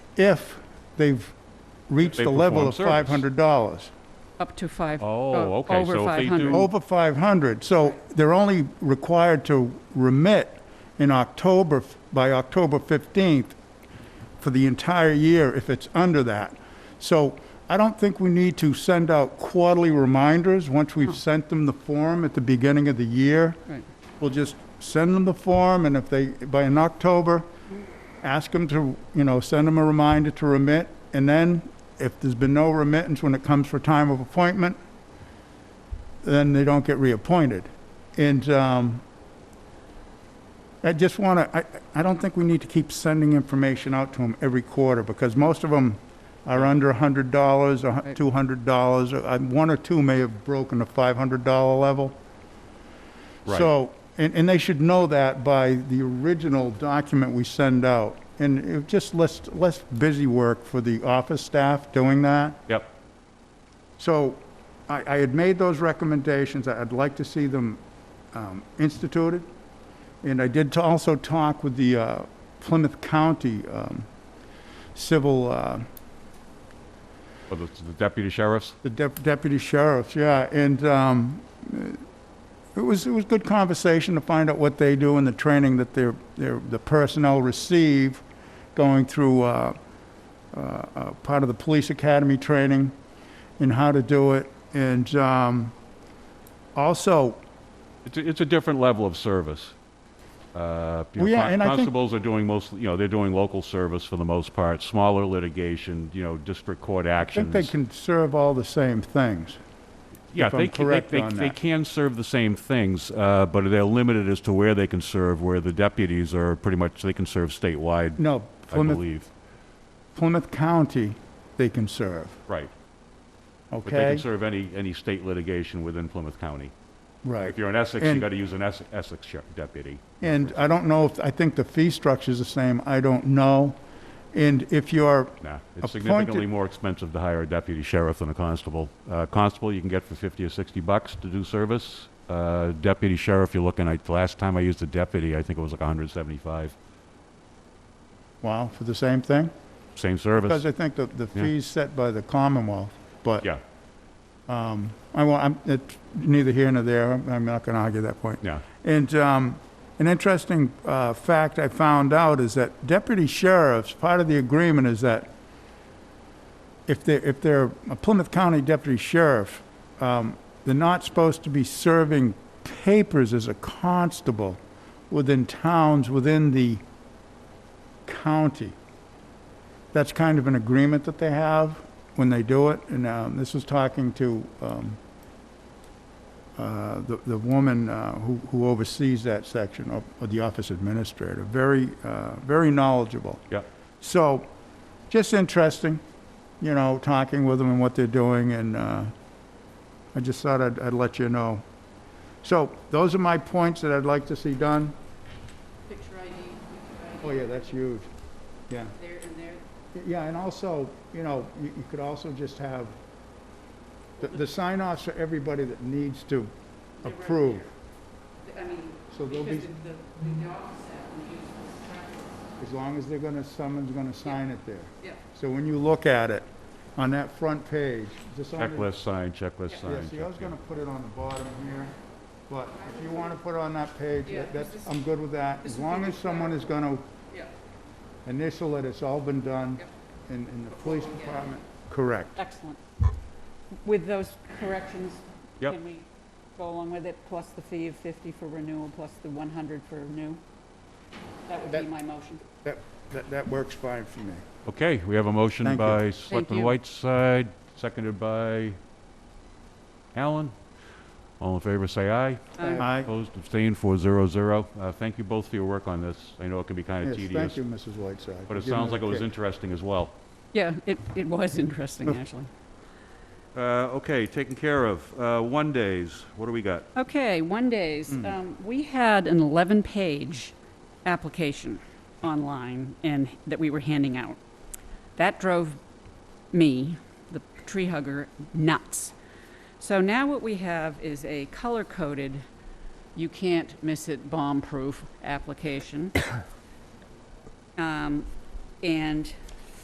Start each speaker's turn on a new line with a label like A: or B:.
A: if they've reached
B: they
A: the level
B: perform
A: of
B: service.
A: five hundred dollars.
C: Up to five.
B: Oh,
C: o-
B: okay,
C: Over
B: so if they
C: 500.
B: do-
A: Over five hundred, so they're only required to remit in October, by October fifteenth for the entire year if it's under that. So I don't think we need to send out quarterly reminders once
B: Hmm.
A: we've sent them the form at the beginning of the year.
C: Right.
A: We'll just send them the form and if they, by in October, ask them to, you know, send them a reminder to remit. And then if there's been no remittance when it comes for time of appointment, then they don't get reappointed. And um, I just want to, I, I don't think we need to keep sending information out to them every quarter, because most of them are under $100 or
C: Right.
A: $200. Uh, One or two may have broken the $500 level.
B: Right.
A: So, and, and they should know that by the original document we send out. And it just less, less busy work for the office staff doing that.
B: Yep,
A: So I, I had made those recommendations, I- I'd like to see them um, instituted. And I did to also talk with the uh, Plymouth County um, Civil, uh,
B: for the the deputy sheriffs.
A: the dep- deputy sheriffs, yeah, and um, it was, it was good conversation to find out what they do and the training that their, their, the personnel receive going through uh, uh, uh, part of the police academy training and how to do it. And um, also,
B: It's, a- it's a different level of service. Uh, you know,
A: Well, yeah,
B: con-
A: and I think-
B: Constables are doing mostly, you know, they're doing local service for the most part, smaller litigation, you know, district court
A: I
B: actions.
A: think they can serve all the same things.
B: Yeah,
A: if
B: they
A: I'm
B: can, they,
A: correct
B: they,
A: on
B: they
A: that.
B: can serve the same things, uh, but they're limited as to where they can serve, where the deputies are pretty much, they can serve statewide,
A: No,
B: I
A: Plymouth,
B: believe.
A: Plymouth County, they can serve,
B: Right. But they
A: okay?
B: can serve any, any state litigation within Plymouth County.
A: Right.
B: If you're in Essex, you
A: And-
B: gotta use an Essex, Essex sheriff- deputy.
A: And I don't know if, I think the fee structure's the same, I don't know. And if you're,
B: Nah,
A: Appointed-
B: it's significantly more expensive to hire a deputy sheriff than a constable. Uh, Constable, you can get for 50 or 60 bucks to do service. Uh, Deputy sheriff, you're looking at, the last time I used a deputy, I think it was like 175.
A: wow, for the same thing?
B: Same
A: Because
B: service.
A: I think the, the
B: Yeah.
A: fee's set by the Commonwealth, but um,
B: Yeah,
A: I won't, I'm, it's neither here nor there, I'm I'm not gonna argue that point.
B: yeah.
A: And um, an interesting uh, fact I found out is that deputy sheriffs, part of the agreement is that if they're, if they're a Plymouth County deputy sheriff, um, they're not supposed to be serving papers as a constable within towns within the county. That's kind of an agreement that they have when they do it. And um, this was talking to um, uh, the the woman uh, who who oversees that section, of of the office administrator, very, uh, very knowledgeable.
B: Yep.
A: So, just interesting, you know, talking with them and what they're doing, and uh, I just thought I'd I'd let you know. So, those are my points that I'd like to see done.
D: Picture ID, picture
A: Oh, yeah, that's huge. Yeah.
D: ID, there and there.
A: Yeah, and also, you know, you, you could also just have the, the sign-offs for everybody that needs to
D: They're right
A: approve.
D: there. I mean,
A: So they'll
D: because the,
A: be,
D: the, the office app, we use this tracker.
A: as long as they're gonna, someone's gonna sign it there.
D: Yeah.
A: So when you look at it, on that front page, just on the.
B: Checklist sign, checklist
D: Yeah,
B: sign.
A: Yeah, see, I was
B: check- yeah.
A: gonna put it on the bottom here, but if you wanna put it on that page,
D: Yeah,
A: that- that's,
D: this-
A: I'm good with that.
D: this
A: As
D: would be
A: long as
D: required.
A: someone is gonna
D: yeah,
A: initial it, it's all been done
D: Yep.
A: in, in the police
D: Yeah.
A: department. Correct.
C: Excellent. With those corrections,
B: Yep.
C: can we go along with it, plus the fee of 50 for renewal, plus the 100 for new? That would
A: That-
C: be my motion.
A: That, that, that works fine for me.
B: Okay, we have a motion
A: Thank you.
B: by Selectman
C: you.
B: Whiteside, seconded by Allen. All in favor, say aye.
C: Um,
A: Aye.
B: Opposed, abstained, four zero zero. Uh, thank you both for your work on this. I know it can be kind of
A: Yes, thank
B: tedious,
A: you, Mrs. Whiteside.
B: but
A: for
B: it
A: giving
B: sounds
A: us
B: like
A: a
B: it was
A: kick.
B: interesting as well.
C: Yeah, it, it was interesting, actually.
B: Uh, okay, taken care of. Uh, one days, what do we got?
C: Okay, one days. Um, we had an 11 page application online and that we were handing out. That drove me, the tree hugger, nuts. So now what we have is a color coded, you can't miss it bomb proof application. um, and